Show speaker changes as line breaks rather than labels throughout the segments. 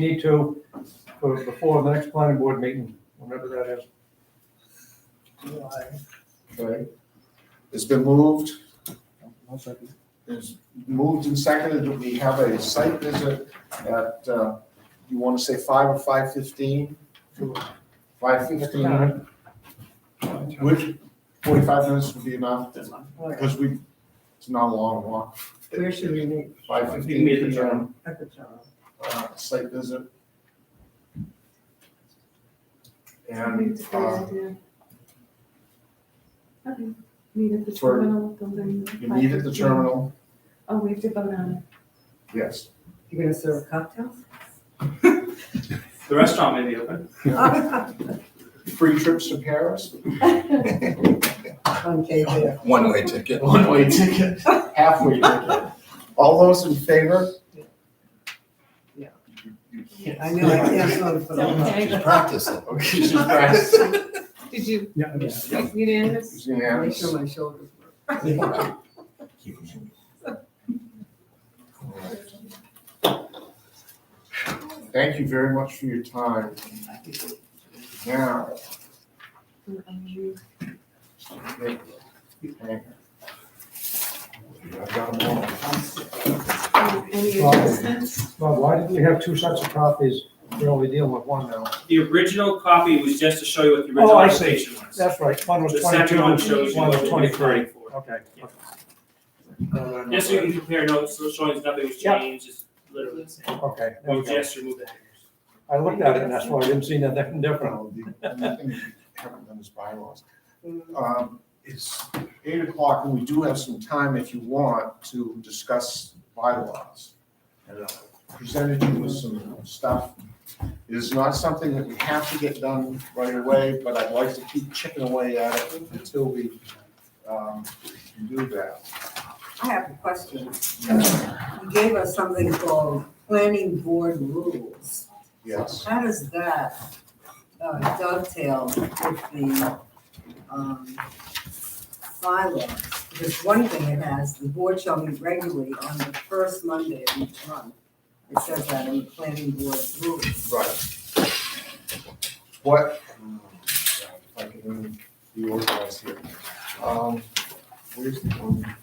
need to for, before the next planning board meeting, whenever that is.
Okay. It's been moved. It's moved and seconded that we have a site visit at, uh, you want to say five or five fifteen? Five fifteen,
Time.
which forty-five minutes would be enough, because we, it's not a long walk.
Where should we meet?
Five
You
fifteen
meet the
PM,
At the town.
uh, site visit. And,
It's a
uh,
great idea. Okay, meet at the
for-
terminal building.
you meet at the terminal,
Oh, we have to vote on
yes.
You're gonna serve cocktails?
The restaurant may be open.
Free trips to Paris?
it.
On KJ.
One-way ticket.
One-way ticket, halfway ticket. All those in favor?
Yeah.
You- you
I know, I can't vote for
Okay.
them.
Just practice it.
Okay, she's pressed.
Did you,
Yeah, yeah.
unanimous?
It's
Make
unanimous.
sure my shoulders work.
Thank you very much for your time. Now, thank you. Thank you. I've got them all.
Any adjustments?
Well, why did we have two sets of copies? We're only dealing with one now.
The original copy was just to show you what the original
Oh, I see.
application was.
That's right, one was
The
twenty-two,
second
one
one
was
shows you what you're
twenty-three.
applying for.
Okay.
Yeah.
Uh,
Just so you can compare notes, so showing nothing was
Yeah.
changed, it's literally the same.
Okay, there we
We
go.
just removed the hangers.
I looked at it and that's why I didn't see nothing different.
Well, the only thing we haven't done is bylaws. Um, It's eight o'clock, and we do have some time if you want to discuss bylaws. And I Presented you with some stuff. It is not something that we have to get done right away, but I'd like to keep chipping away at it until we um, do that.
I have a question. You gave us something called planning board rules.
Yes.
How does that uh, dovetail with the um, bylaws? Because one thing it has, the board shall meet regularly on the first Monday of each month. It says that in the planning board rules.
Right. What? Hmm, If I can reorganize here. Um, Where's the one?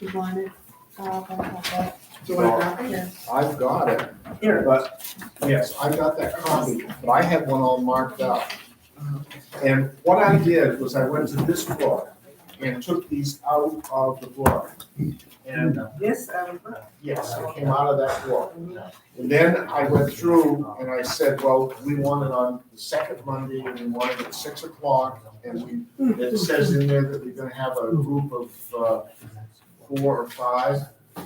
You want it? Uh, blah, blah, blah.
Do you want to copy it?
I've got it,
Here.
but, yes, I got that copy, but I had one all marked up. And what I did was I went to this book and took these out of the book. And,
This, um,
yes, it came out of that book. And then I went through and I said, well, we want it on the second Monday and we want it at six o'clock. And we, it says in there that we're gonna have a group of, uh, four or five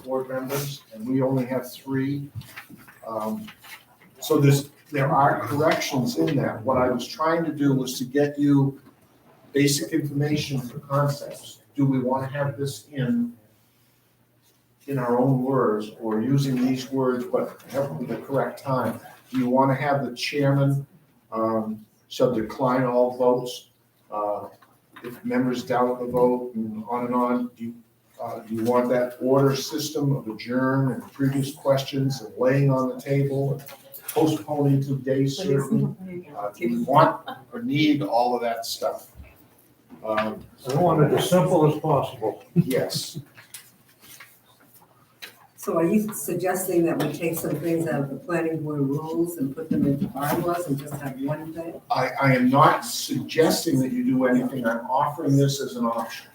board members, and we only have three. Um, So there's, there are corrections in that. What I was trying to do was to get you basic information for concepts. Do we want to have this in, in our own words, or using these words, but have them the correct time? Do you want to have the chairman um, shall decline all votes? uh, If members doubt the vote, and on and on, do you uh, Do you want that order system of adjourn and previous questions and laying on the table, and postponing to day certain? Uh, Do you want or need all of that stuff? Um,
I want it as simple as possible.
Yes,
so are you suggesting that we take some things out of the planning board rules and put them into bylaws and just have one thing?
I, I am not suggesting that you do anything. I'm offering this as an option.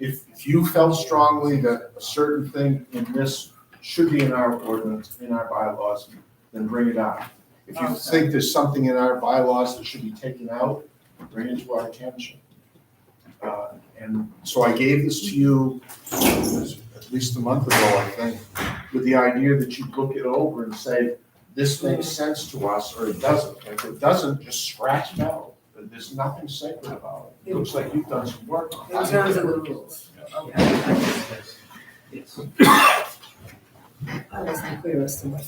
If if you felt strongly that a certain thing in this should be in our ordinance, in our bylaws, then bring it out. If you
Okay.
think there's something in our bylaws that should be taken out, bring it to our attention. Uh, And so I gave this to you at least a month ago, I think, with the idea that you look it over and say, this makes sense to us or it doesn't. If it doesn't, just scratch it out. There's nothing sacred about it. Looks like you've done some work on it.
In terms of the rules? Okay. I wasn't clear as to what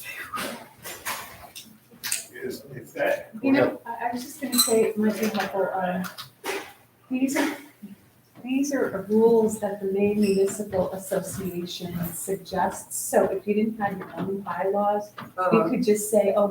Is, if that.
You know, I, I was just gonna say, it might be helpful, um, these are, these these are rules that the Maine Municipal Association suggests, so if you didn't have your own bylaws, you
Uh,
could just say, oh,